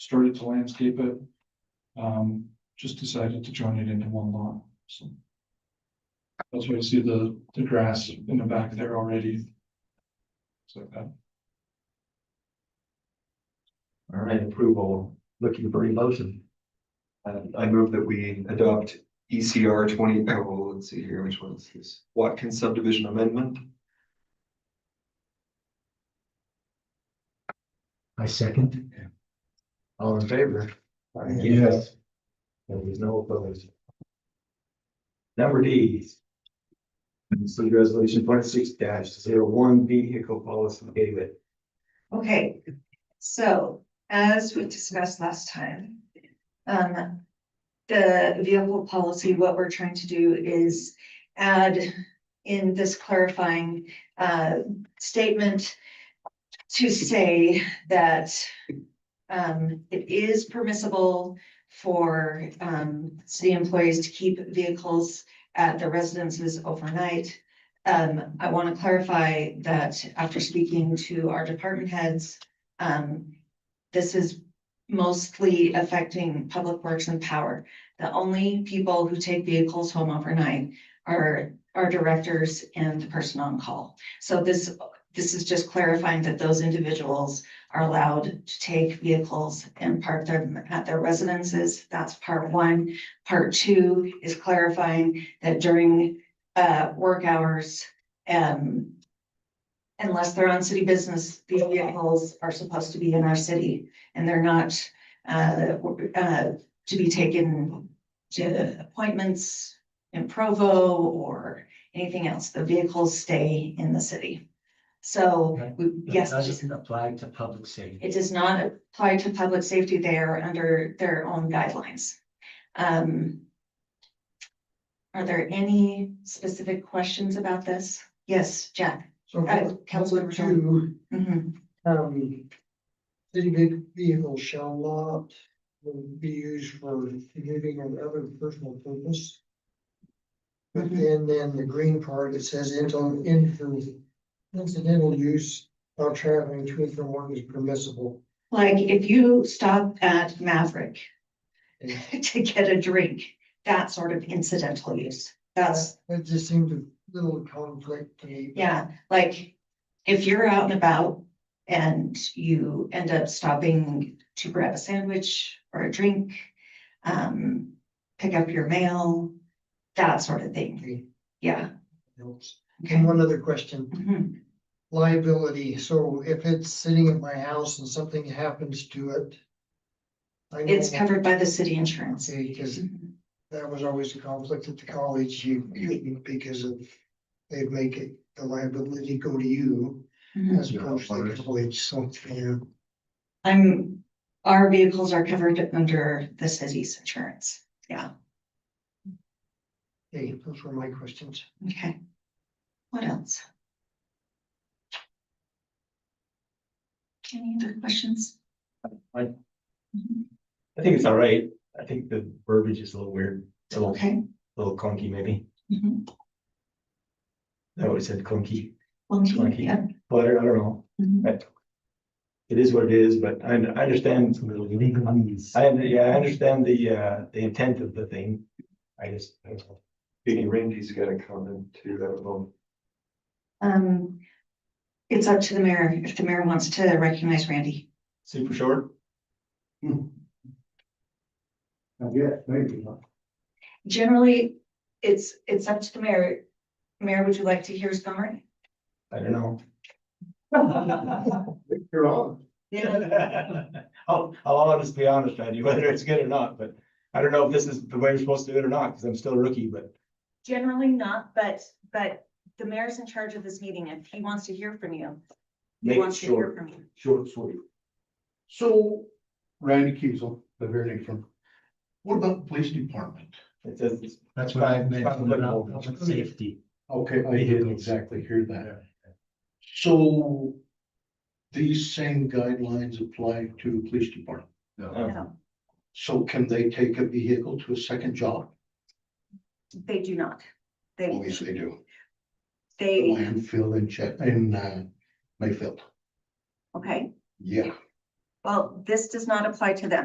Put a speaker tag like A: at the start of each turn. A: started to landscape it. Um, just decided to join it into one lot, so. That's why you see the, the grass in the back there already. It's like that.
B: All right, approval, looking for a motion.
C: Uh, I move that we adopt ECR twenty, oh, well, let's see here, which one is this? Watkins subdivision amendment?
B: I second. All in favor?
D: Yes.
B: There was no opposed. Number D. City Resolution twenty-six dash zero one vehicle policy, David.
E: Okay, so as we discussed last time, um, the vehicle policy, what we're trying to do is add in this clarifying, uh, statement to say that, um, it is permissible for, um, city employees to keep vehicles at their residences overnight. Um, I want to clarify that after speaking to our department heads, um, this is mostly affecting public works and power. The only people who take vehicles home overnight are our directors and the person on call. So this, this is just clarifying that those individuals are allowed to take vehicles and park them at their residences. That's part one. Part two is clarifying that during uh, work hours, um. Unless they're on city business, these vehicles are supposed to be in our city and they're not, uh, uh, to be taken to appointments in Provo or anything else. The vehicles stay in the city. So, we- yes.
B: apply to public safety.
E: It does not apply to public safety. They are under their own guidelines. Um. Are there any specific questions about this? Yes, Jack.
D: So
E: Uh, Councilor
D: number two,
E: Mhm.
D: um, city ve- vehicles shall not um, be used for commuting or other personal purpose. But
E: Mm-hmm.
D: then, then the green part, it says incidental, into- incidental use while traveling to and from work is permissible.
E: Like if you stop at Maverick to get a drink, that sort of incidental use. That's,
D: That just seemed a little conflict to me.
E: yeah, like if you're out and about and you end up stopping to grab a sandwich or a drink, um, pick up your mail, that sort of thing.
D: Okay,
E: Yeah.
D: helps.
E: Okay.
D: And one other question.
E: Mhm.
D: liability, so if it's sitting at my house and something happens to it. I know
E: It's covered by the city insurance.
D: Because
E: Mhm.
D: that was always a conflict at the college, you, you- because of, they'd make it, the liability go to you
E: Mhm.
D: as opposed to the college, so, yeah.
E: I'm, our vehicles are covered under the city's insurance.
D: Hey, those were my questions.
E: Okay. What else? Any other questions?
B: I
E: Mhm.
B: I think it's all right. I think the verbiage is a little weird, It's a little,
E: Okay.
B: little clunky maybe.
E: Mhm.
B: I always said clunky,
E: Well,
B: Clunky.
E: yeah.
B: but I don't know.
E: Mhm.
B: It is what it is, but I, I understand. I, under- yeah, I understand the, uh, the intent of the thing. I just, I don't know.
C: Maybe Randy's got a comment to that one.
E: Um, it's up to the mayor, if the mayor wants to recognize Randy.
B: super short.
E: Generally, it's, it's up to the mayor. Mayor, would you like to hear his summary?
B: I don't know.
C: You're on.
B: I'll, I'll honestly be honest, Randy, whether it's good or not, but I don't know if this is the way we're supposed to do it or not, because I'm still a rookie, but
E: Generally not, but, but the mayor's in charge of this meeting. If he wants to hear from you,
B: make it short.
E: from you.
F: Short and sweet. So Randy Kiesel, the very from, what about the police department?
B: It says it's
G: That's what I
B: Fine,
G: meant
B: fine,
G: about
B: look,
G: public
B: look.
G: safety.
F: Okay, I didn't exactly hear that. So these same guidelines apply to the police department. So can they take a vehicle to a second job?
E: They do not. They,
F: Obviously they do.
E: they,
F: Landfill in Chet, in uh, Mayfield.
E: okay.
F: Yeah,
E: Well, this does not apply to them.